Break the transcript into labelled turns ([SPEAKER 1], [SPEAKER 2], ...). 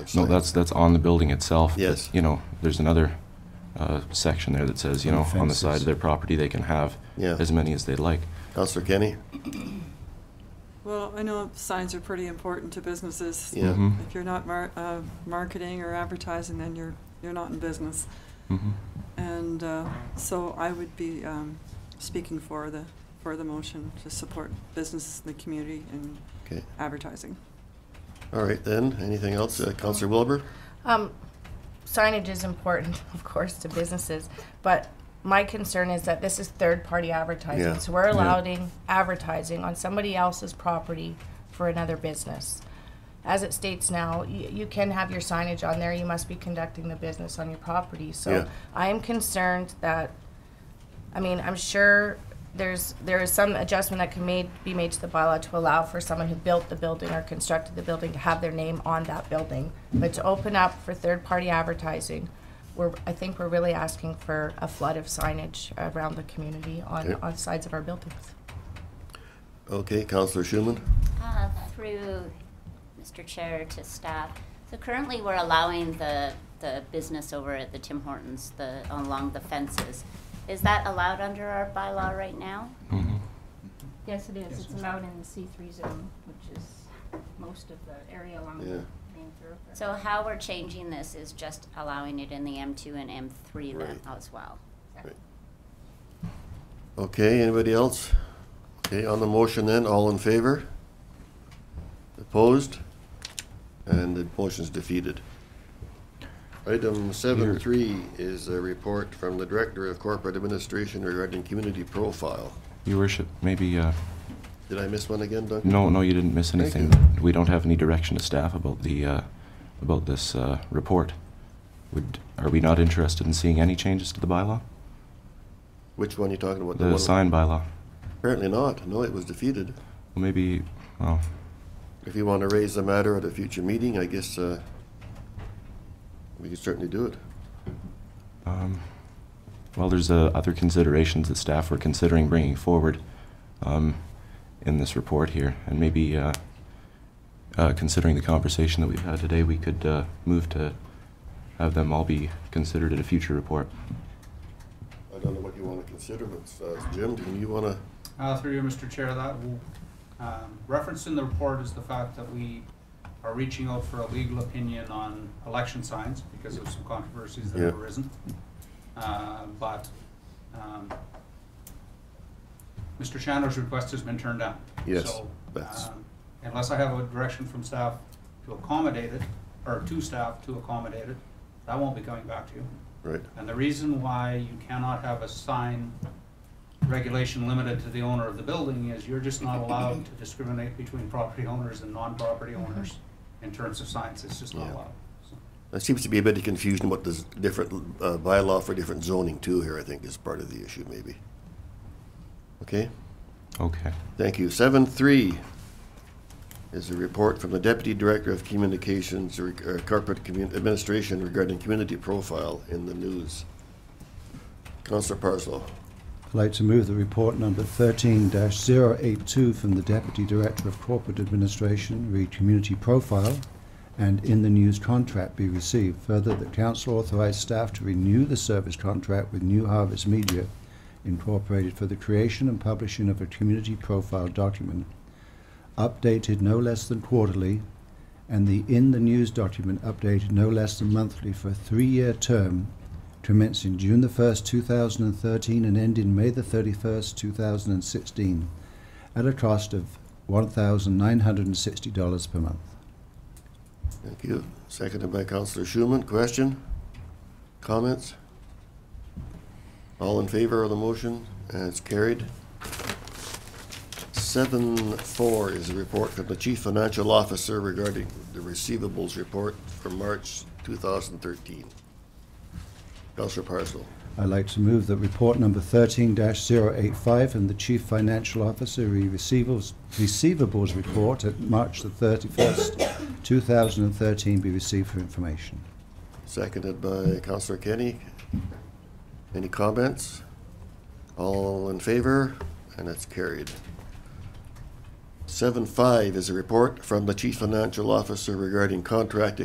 [SPEAKER 1] No, that's, that's on the building itself. but,
[SPEAKER 2] Yes.
[SPEAKER 1] You know, there's another uh, section there that says, you know, on the side
[SPEAKER 3] Fences.
[SPEAKER 1] of their property, they can have
[SPEAKER 2] Yeah.
[SPEAKER 1] as many as they'd like.
[SPEAKER 2] Counselor Kenny?
[SPEAKER 4] Well, I know signs are pretty important to businesses.
[SPEAKER 2] Yeah. Mm-hmm.
[SPEAKER 1] Mhm.
[SPEAKER 4] If you're not mar- uh, marketing or advertising, then you're, you're not in business.
[SPEAKER 1] Mhm.
[SPEAKER 4] And, uh, so I would be, um, speaking for the, for the motion to support businesses in the community and
[SPEAKER 2] Okay,
[SPEAKER 4] advertising.
[SPEAKER 2] all right then, anything else? Uh, Counselor Wilbur?
[SPEAKER 5] Um, signage is important, of course, to businesses, but my concern is that this is third-party advertising.
[SPEAKER 2] Yeah.
[SPEAKER 5] So we're allowing advertising on somebody else's property for another business. As it states now, you, you can have your signage on there. You must be conducting the business on your property. So
[SPEAKER 2] Yeah.
[SPEAKER 5] I am concerned that I mean, I'm sure there's, there is some adjustment that can made, be made to the bylaw to allow for someone who built the building or constructed the building to have their name on that building. But to open up for third-party advertising, we're, I think we're really asking for a flood of signage around the community on,
[SPEAKER 2] Yeah.
[SPEAKER 5] on sides of our buildings.
[SPEAKER 2] Okay, Counselor Schumann?
[SPEAKER 6] Uh, Through Mr. Chair to staff, so currently we're allowing the, the business over at the Tim Hortons, the, along the fences. Is that allowed under our bylaw right now?
[SPEAKER 1] Mhm.
[SPEAKER 7] Yes, it is. It's allowed in the C3 zone, which is most of the area along the
[SPEAKER 2] Yeah.
[SPEAKER 7] main thoroughfare.
[SPEAKER 6] So how we're changing this is just allowing it in the M2 and M3 then
[SPEAKER 2] Right.
[SPEAKER 6] as well.
[SPEAKER 2] Okay, anybody else? Okay, on the motion then, all in favor? Opposed? And the motion's defeated. Item seven three is a report from the Director of Corporate Administration regarding community profile.
[SPEAKER 1] Your worship, maybe, uh,
[SPEAKER 2] Did I miss one again, Duncan?
[SPEAKER 1] no, no, you didn't miss
[SPEAKER 2] Thank
[SPEAKER 1] anything.
[SPEAKER 2] you.
[SPEAKER 1] We don't have any direction to staff about the, uh, about this uh, report. Would, are we not interested in seeing any changes to the bylaw?
[SPEAKER 2] Which one are you talking about?
[SPEAKER 1] The
[SPEAKER 2] one-
[SPEAKER 1] sign bylaw?
[SPEAKER 2] Apparently not. No, it was defeated.
[SPEAKER 1] Well, Maybe, well,
[SPEAKER 2] If you want to raise the matter at a future meeting, I guess uh, we can certainly do it.
[SPEAKER 1] Um, Well, there's uh, other considerations that staff were considering bringing forward um, in this report here, and maybe uh, uh, considering the conversation that we've had today, we could uh, move to have them all be considered at a future report.
[SPEAKER 2] I don't know what you want to consider, but uh, Jim, do you want to?
[SPEAKER 8] Uh, through you, Mr. Chair, that will, um, referenced in the report is the fact that we are reaching out for a legal opinion on election signs because of some controversies that have
[SPEAKER 2] Yeah.
[SPEAKER 8] arisen. Uh, but, um, Mr. Chandler's request has been turned down.
[SPEAKER 2] Yes,
[SPEAKER 8] So,
[SPEAKER 2] that's-
[SPEAKER 8] um, Unless I have a direction from staff to accommodate it, or to staff to accommodate it, that won't be coming back to you.
[SPEAKER 2] Right.
[SPEAKER 8] And the reason why you cannot have a sign regulation limited to the owner of the building is you're just not allowed to discriminate between property owners and non-property owners in terms of signs, it's just not
[SPEAKER 2] Yeah.
[SPEAKER 8] allowed. So,
[SPEAKER 2] There seems to be a bit of confusion about this different uh, bylaw for different zoning too here, I think is part of the issue maybe. Okay,
[SPEAKER 1] Okay.
[SPEAKER 2] thank you. Seven three is a report from the Deputy Director of Communications, reg- uh, Corporate Commun- Administration regarding community profile in the news. Counselor Parslow.
[SPEAKER 3] I'd like to move the report number 13-082 from the Deputy Director of Corporate Administration, read Community Profile, and in the news contract be received. Further, that council authorize staff to renew the service contract with New Harvest Media Incorporated for the creation and publishing of a community profile document, updated no less than quarterly, and the in the news document updated no less than monthly for a three-year term commencing June the 1st, 2013 and ending May the 31st, 2016 at a cost of $1,960 per month.
[SPEAKER 2] Thank you. Seconded by Counselor Schumann. Question? Comments? All in favor of the motion? And it's carried. Seven four is a report from the Chief Financial Officer regarding the receivables report for March two thousand thirteen. Counselor Parslow.
[SPEAKER 3] I'd like to move that report number 13-085 and the Chief Financial Officer re- receivables, receivables report at March the 31st, 2013 be received for information.
[SPEAKER 2] Seconded by Counselor Kenny. Any comments? All in favor? And it's carried. Seven five is a report from the Chief Financial Officer regarding contract